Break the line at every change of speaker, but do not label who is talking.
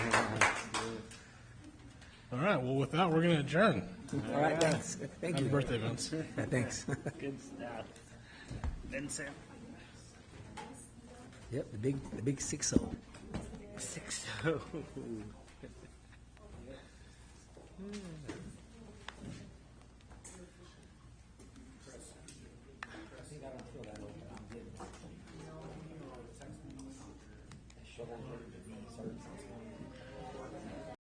All right, well, with that, we're going to adjourn.
All right, thanks. Thank
Happy
you.
birthday, Vince.
Thanks.
Good stuff. Vincent.
Yep, the big, the big six oh.
Six oh.